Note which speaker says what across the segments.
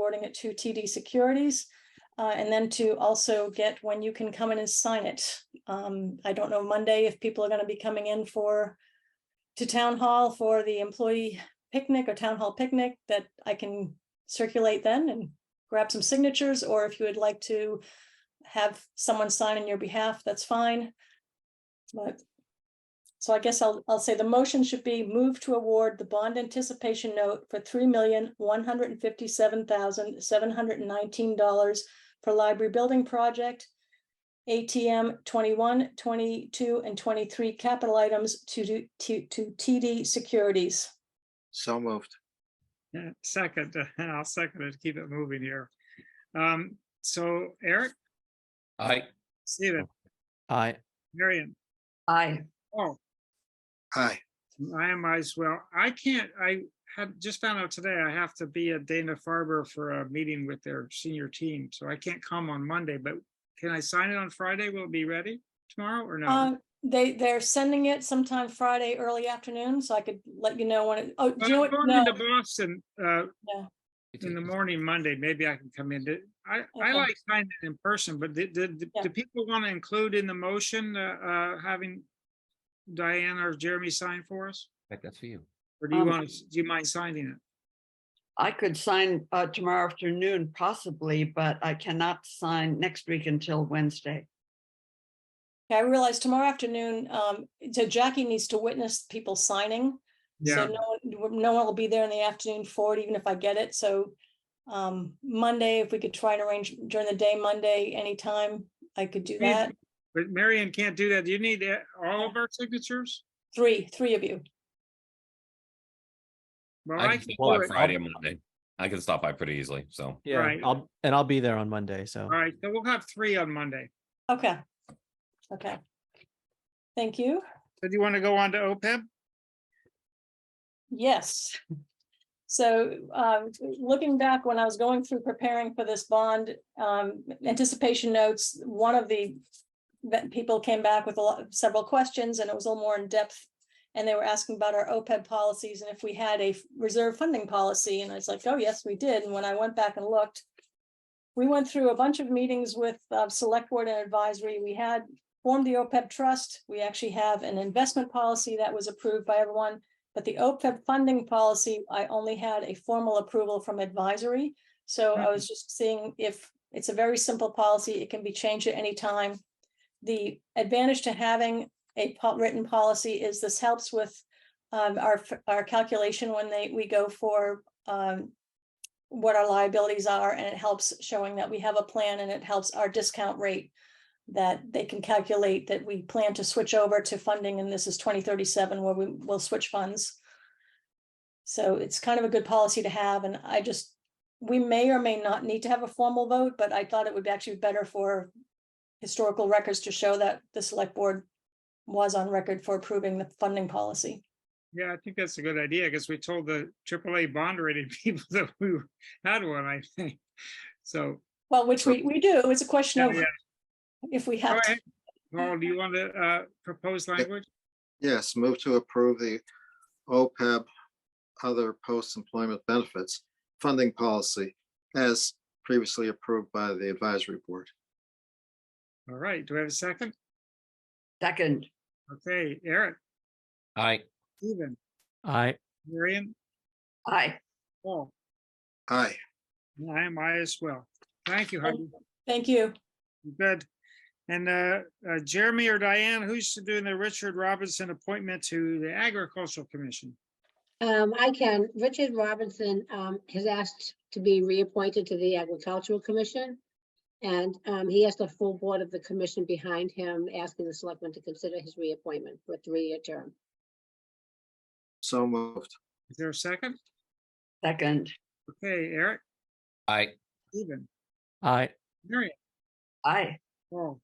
Speaker 1: forwarding it to TD Securities. Uh, and then to also get when you can come in and sign it. Um, I don't know Monday if people are gonna be coming in for to town hall for the employee picnic or town hall picnic that I can circulate then and grab some signatures, or if you would like to have someone sign on your behalf, that's fine. But so I guess I'll, I'll say the motion should be move to award the bond anticipation note for three million, one hundred and fifty-seven thousand, seven hundred and nineteen dollars for library building project. ATM 21, 22, and twenty-three capital items to do, to, to TD Securities.
Speaker 2: So moved.
Speaker 3: Yeah, Second, and I'll second it, to keep it moving here. Um, so Eric,
Speaker 4: Aye.
Speaker 3: Stephen,
Speaker 4: Aye.
Speaker 3: Marion,
Speaker 5: Aye.
Speaker 3: oh,
Speaker 2: Aye.
Speaker 3: I am as well. I can't, I had just found out today I have to be at Dana Farber for a meeting with their senior team, so I can't come on Monday, but can I sign it on Friday? Will it be ready tomorrow or no?
Speaker 1: Uh, they, they're sending it sometime Friday, early afternoon, so I could let you know when it, oh, do
Speaker 3: But
Speaker 1: you know what?
Speaker 3: I'm going
Speaker 1: No,
Speaker 3: into Boston, uh, in the
Speaker 4: It's-
Speaker 3: morning Monday, maybe I can come in. Did- I, I
Speaker 1: Okay.
Speaker 3: like signing it in person, but did, did,
Speaker 1: Yeah.
Speaker 3: do people want to include in the motion, uh, uh, having Diane or Jeremy sign for us?
Speaker 4: Right, That's for you.
Speaker 3: Or do you
Speaker 5: Um,
Speaker 3: want, do you mind signing it?
Speaker 5: I could sign uh, tomorrow afternoon possibly, but I cannot sign next week until Wednesday.
Speaker 1: I realize tomorrow afternoon, um, so Jackie needs to witness people signing. So
Speaker 3: Yeah,
Speaker 1: no one, no one will be there in the afternoon for it, even if I get it, so. Um, Monday, if we could try and arrange during the day, Monday, anytime, I could do
Speaker 3: Please.
Speaker 1: that.
Speaker 3: but Marion can't do that. Do you need uh, all of our signatures?
Speaker 1: Three, three of you.
Speaker 3: Well,
Speaker 4: I
Speaker 3: I
Speaker 4: can
Speaker 3: can
Speaker 4: stop
Speaker 3: do
Speaker 4: by
Speaker 3: it.
Speaker 4: Friday, or Monday. I can stop by pretty easily, so.
Speaker 6: Yeah,
Speaker 3: Right.
Speaker 6: I'll, and I'll be there on Monday, so.
Speaker 3: All right, so we'll have three on Monday.
Speaker 1: Okay. Okay. Thank you.
Speaker 3: So do you want to go on to E OPEB?
Speaker 1: Yes. So um, looking back, when I was going through preparing for this bond um, anticipation notes, one of the that people came back with a lot, several questions, and it was a little more in depth. And they were asking about our OPEB policies and if we had a reserve funding policy, and I was like, oh, yes, we did. And when I went back and looked, we went through a bunch of meetings with uh, Select Board and Advisory. We had formed the OPEB trust. We actually have an investment policy that was approved by everyone. But the OPEB funding policy, I only had a formal approval from advisory. So I
Speaker 3: Mhm.
Speaker 1: was just seeing if, it's a very simple policy, it can be changed at any time. The advantage to having a po- written policy is this helps with um, our, f- our calculation when they, we go for um, what our liabilities are, and it helps showing that we have a plan and it helps our discount rate that they can calculate that we plan to switch over to funding, and this is twenty thirty-seven where we will switch funds. So it's kind of a good policy to have, and I just, we may or may not need to have a formal vote, but I thought it would be actually better for historical records to show that the select board was on record for approving the funding policy.
Speaker 3: Yeah, I think that's a good idea because we told the AAA bond rated people that we had one, I think. So,
Speaker 1: Well, which we, we do, it's a question
Speaker 3: yeah,
Speaker 1: of
Speaker 3: yeah.
Speaker 1: if we
Speaker 3: Go
Speaker 1: have to.
Speaker 3: ahead. Paul, do you want to, uh, propose language?
Speaker 2: Yes, move to approve the OPEB other post-employment benefits funding policy as previously approved by the advisory board.
Speaker 3: All right, do we have a second?
Speaker 5: Second,
Speaker 3: Okay, Eric,
Speaker 4: Aye.
Speaker 3: Stephen,
Speaker 6: I,
Speaker 3: Marion,
Speaker 5: aye.
Speaker 3: Paul,
Speaker 2: Aye.
Speaker 3: and I am I as well. Thank you, Heidi.
Speaker 1: Thank you.
Speaker 3: Good. And uh, uh, Jeremy or Diane, who's doing the Richard Robinson appointment to the Agricultural Commission?
Speaker 7: Um, I can. Richard Robinson, um, has asked to be reappointed to the Agricultural Commission. And, um, he has the full board of the commission behind him, asking the selectmen to consider his reappointment for a three-year term.
Speaker 2: So moved.
Speaker 3: Is there a second?
Speaker 5: Second,
Speaker 3: Okay, Eric,
Speaker 4: Aye.
Speaker 3: Stephen,
Speaker 6: I,
Speaker 3: Marion,
Speaker 5: aye.
Speaker 3: Paul,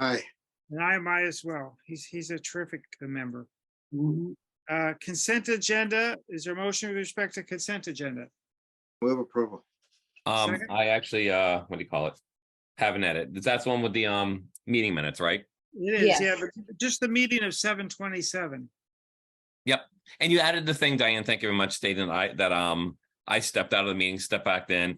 Speaker 2: Aye.
Speaker 3: and I am I as well. He's, he's a terrific member.
Speaker 5: Mhm.
Speaker 3: Uh, Consent agenda, is there a motion with respect to consent agenda?
Speaker 2: Move approval.
Speaker 4: Um,
Speaker 3: Second.
Speaker 4: I actually, uh, what do you call it? Have an edit. That's the one with the, um, meeting minutes, right?
Speaker 3: It
Speaker 7: Yes.
Speaker 3: is, yeah, but just the meeting of seven twenty-seven.
Speaker 4: And you added the thing, Diane, thank you very much, stating that I, that, um, I stepped out of the meeting, stepped back in,